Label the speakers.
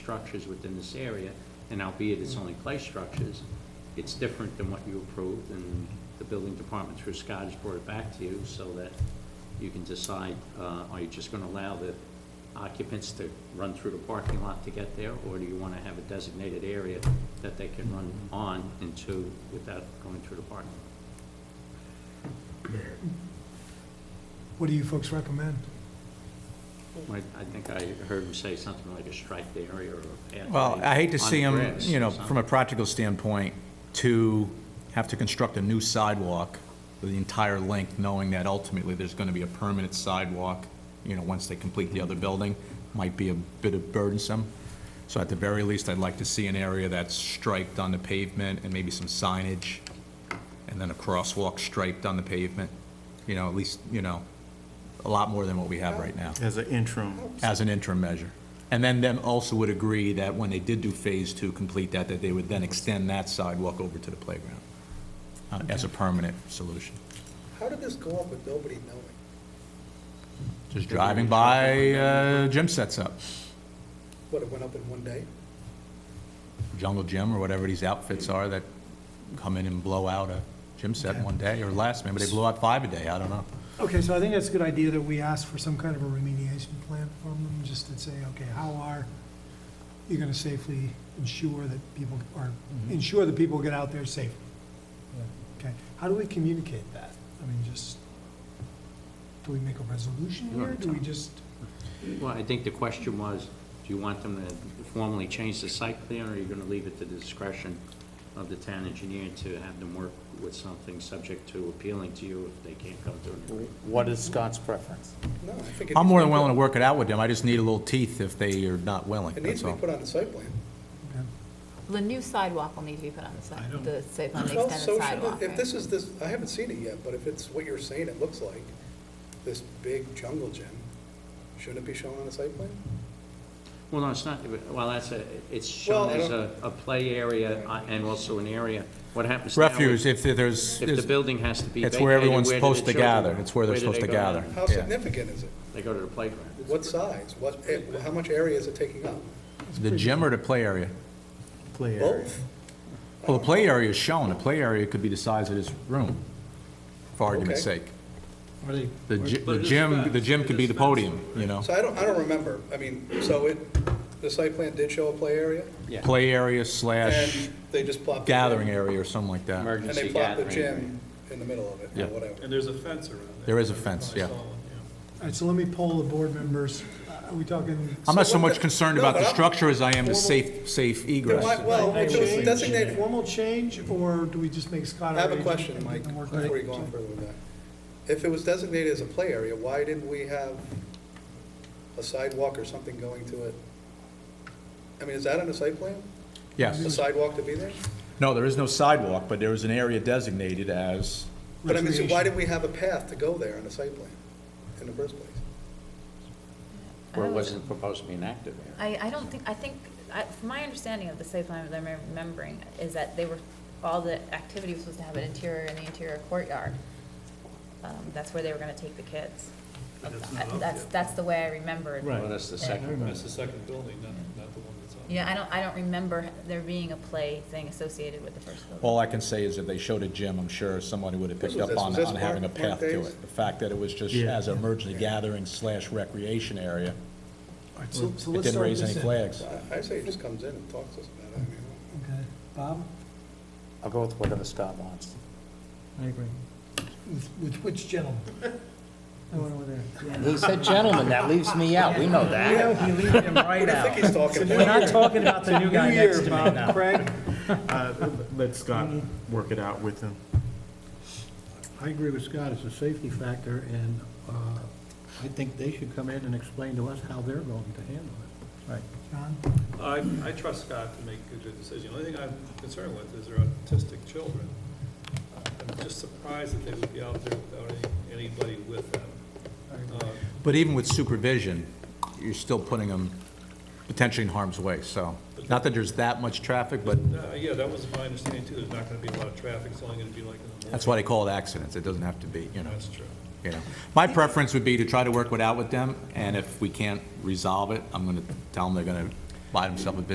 Speaker 1: structures within this area, and albeit it's only clay structures, it's different than what you approved, and the building department through Scott has brought it back to you so that you can decide, uh, are you just gonna allow the occupants to run through the parking lot to get there, or do you wanna have a designated area that they can run on and to without going through the parking lot?
Speaker 2: What do you folks recommend?
Speaker 1: I I think I heard him say something like a striped area or a pathway.
Speaker 3: Well, I hate to
Speaker 1: on
Speaker 3: see them,
Speaker 1: grass
Speaker 3: you know,
Speaker 1: or
Speaker 3: from a practical standpoint, to have to construct a new sidewalk the entire length, knowing that ultimately there's going to be a permanent sidewalk, you know, once they complete the other building, might be a bit of burdensome. So at the very least, I'd like to see an area that's striped on the pavement and maybe some signage, and then a crosswalk striped on the pavement, you know, at least, you know, a lot more than what we have right now
Speaker 4: As an interim,
Speaker 3: as an interim measure. And then them also would agree that when they did do Phase Two, complete that, that they would then extend that sidewalk over to the playground uh, as a permanent solution.
Speaker 5: How did this go up with nobody knowing?
Speaker 3: Just driving by, uh, gym sets up,
Speaker 5: What, it went up in one day?
Speaker 3: Jungle Gym or whatever these outfits are that come in and blow out a gym set in one day or less. Maybe they blow out five a day, I don't know.
Speaker 2: Okay, so I think that's a good idea that we ask for some kind of a remediation plan from them, just to say, okay, how are you gonna safely ensure that people, or ensure that people get out there safely? Okay, how do we communicate that? I mean, just, do we make a resolution
Speaker 1: You
Speaker 2: here?
Speaker 1: want to
Speaker 2: Do we
Speaker 1: tell.
Speaker 2: just,
Speaker 1: something. Well, I think the question was, do you want them to formally change the site plan, or are you gonna leave it to the discretion of the town engineer to have them work with something subject to appealing to you if they can't come to an agreement?
Speaker 4: what is Scott's preference?
Speaker 5: No, I think. it
Speaker 3: I'm more
Speaker 5: needs
Speaker 3: than
Speaker 5: be
Speaker 3: willing to
Speaker 5: put-
Speaker 3: work it out with them. I just need a little teeth if they are not willing,
Speaker 5: It
Speaker 3: that's
Speaker 5: needs to be
Speaker 3: all.
Speaker 5: put on the site plan.
Speaker 2: okay,
Speaker 6: The new sidewalk will need to be put on the
Speaker 2: I
Speaker 6: side,
Speaker 2: don't-
Speaker 6: the site plan, the
Speaker 5: Well, so
Speaker 6: extended
Speaker 5: should
Speaker 6: sidewalk.
Speaker 5: it- If
Speaker 6: right?
Speaker 5: this is this, I haven't seen it yet, but if it's what you're saying it looks like, this big jungle gym, shouldn't it be shown on the site plan?
Speaker 1: Well, no, it's not, well, that's a, it's
Speaker 5: Well,
Speaker 1: shown
Speaker 5: I
Speaker 1: as a,
Speaker 5: don't-
Speaker 1: a play area uh, and also an area. What happens now is
Speaker 3: Refuse, if there's,
Speaker 1: If the
Speaker 3: there's-
Speaker 1: building has to be
Speaker 3: It's
Speaker 1: vacated,
Speaker 3: where everyone's
Speaker 1: where do
Speaker 3: supposed
Speaker 1: the
Speaker 3: to
Speaker 1: children
Speaker 3: gather.
Speaker 1: go?
Speaker 3: It's where they're
Speaker 1: do
Speaker 3: supposed
Speaker 1: they
Speaker 3: to
Speaker 1: go now?
Speaker 3: gather.
Speaker 5: How
Speaker 3: Yeah.
Speaker 5: significant is it?
Speaker 1: They go to the playground.
Speaker 5: What size? What, eh, how much area is it taking up?
Speaker 3: the gym or the play area?
Speaker 4: Play area.
Speaker 5: Both?
Speaker 3: Well, the play area is shown, the play area could be the size of this room, for argument's
Speaker 5: Okay.
Speaker 3: sake. The gy- the gym, the gym could be the podium, you know?
Speaker 5: So I don't, I don't remember. I mean, so it, the site plan did show a play area,
Speaker 1: Yeah.
Speaker 3: Play area slash
Speaker 5: and they just plopped. the gym-
Speaker 3: gathering area or something like that.
Speaker 5: And
Speaker 1: Emergency
Speaker 5: they plopped the
Speaker 1: gathering.
Speaker 5: gym in the middle of it,
Speaker 3: Yeah.
Speaker 5: or whatever.
Speaker 7: And there's a fence around it.
Speaker 3: There is a fence, yeah.
Speaker 2: all right, so let me poll the board members, Uh, are we talking?
Speaker 3: I'm not so
Speaker 5: what
Speaker 3: much
Speaker 5: the-
Speaker 3: concerned
Speaker 5: no,
Speaker 3: about
Speaker 5: but
Speaker 3: the
Speaker 5: I'm-
Speaker 3: structure as I am the
Speaker 2: Formal-
Speaker 3: safe, safe
Speaker 5: Then why-
Speaker 3: egress.
Speaker 5: Well, if it was
Speaker 2: Change,
Speaker 5: designated,
Speaker 2: Formal change, or do we just make Scott our
Speaker 5: I have a
Speaker 2: agent
Speaker 5: question,
Speaker 2: and
Speaker 5: Mike,
Speaker 2: work with it?
Speaker 5: before you go on further with that. If it was designated as a play area, why didn't we have a sidewalk or something going to it? I mean, is that on the site plan? The
Speaker 3: Yes.
Speaker 5: sidewalk to be there?
Speaker 3: No, there is no sidewalk, but there is an area designated as,
Speaker 5: But I mean, so
Speaker 2: Recreation.
Speaker 5: why did we have a path to go there on the site plan in the first place?
Speaker 1: Or it
Speaker 8: Oh.
Speaker 1: wasn't proposed to be an active area.
Speaker 8: I, I don't think, I think, I, from my understanding of the site plan, that I'm remembering, is that they were, all the activity was supposed to have an interior and the interior courtyard. Um, that's where they were gonna take the kids.
Speaker 7: That's not up
Speaker 8: That's,
Speaker 7: yet.
Speaker 8: that's the way I remembered.
Speaker 1: Well, that's the second.
Speaker 7: That's the second building, not, not the one that's on.
Speaker 8: Yeah, I don't, I don't remember there being a play thing associated with the first building.
Speaker 3: all I can say is if they showed a gym, I'm sure somebody would have picked
Speaker 5: This was-
Speaker 3: up on,
Speaker 5: this was
Speaker 3: on having a
Speaker 5: Mark- Mark
Speaker 3: path to
Speaker 5: Davis?
Speaker 3: it. The fact that it was just
Speaker 4: Yeah.
Speaker 3: as an emergency gathering slash recreation area,
Speaker 2: All right, so, so
Speaker 3: it
Speaker 2: let's
Speaker 3: didn't
Speaker 2: start with
Speaker 3: raise any
Speaker 2: this end.
Speaker 3: flags.
Speaker 5: I I say he just comes in and talks to us about it, I mean.
Speaker 2: Okay, Bob?
Speaker 4: I'll go with whatever Scott wants.
Speaker 9: I agree.
Speaker 2: With, with which gentleman?
Speaker 9: I went over there.
Speaker 4: He said gentlemen, that leaves me out, we know that.
Speaker 9: Yeah, you leave him
Speaker 5: I
Speaker 9: right
Speaker 5: don't think he's talking
Speaker 9: We're
Speaker 5: about
Speaker 9: not talking about the new guy
Speaker 2: New year,
Speaker 9: next to me
Speaker 2: Bob.
Speaker 9: now.
Speaker 2: Craig?
Speaker 4: Uh, Let Scott work it out with him.
Speaker 9: I agree with Scott, it's a safety factor, and uh, I think they should come in and explain to us how they're going to handle it. Right.
Speaker 2: John?
Speaker 7: I, I trust Scott to make a good decision. The only thing I'm concerned with is their autistic children. Uh, I'm just surprised that they would be out there without any- anybody with them. Uh,
Speaker 3: But even with supervision, you're still putting them potentially in harm's way, so, not that there's that much traffic, but
Speaker 7: no, Yeah, that was my understanding too, there's not gonna be a lot of traffic, it's only gonna be like in the morning.
Speaker 3: that's why they call it accidents, it doesn't have to be, you know,
Speaker 7: That's true.
Speaker 3: you know. My preference would be to try to work it out with them, and if we can't resolve it, I'm gonna tell them they're gonna buy themselves a business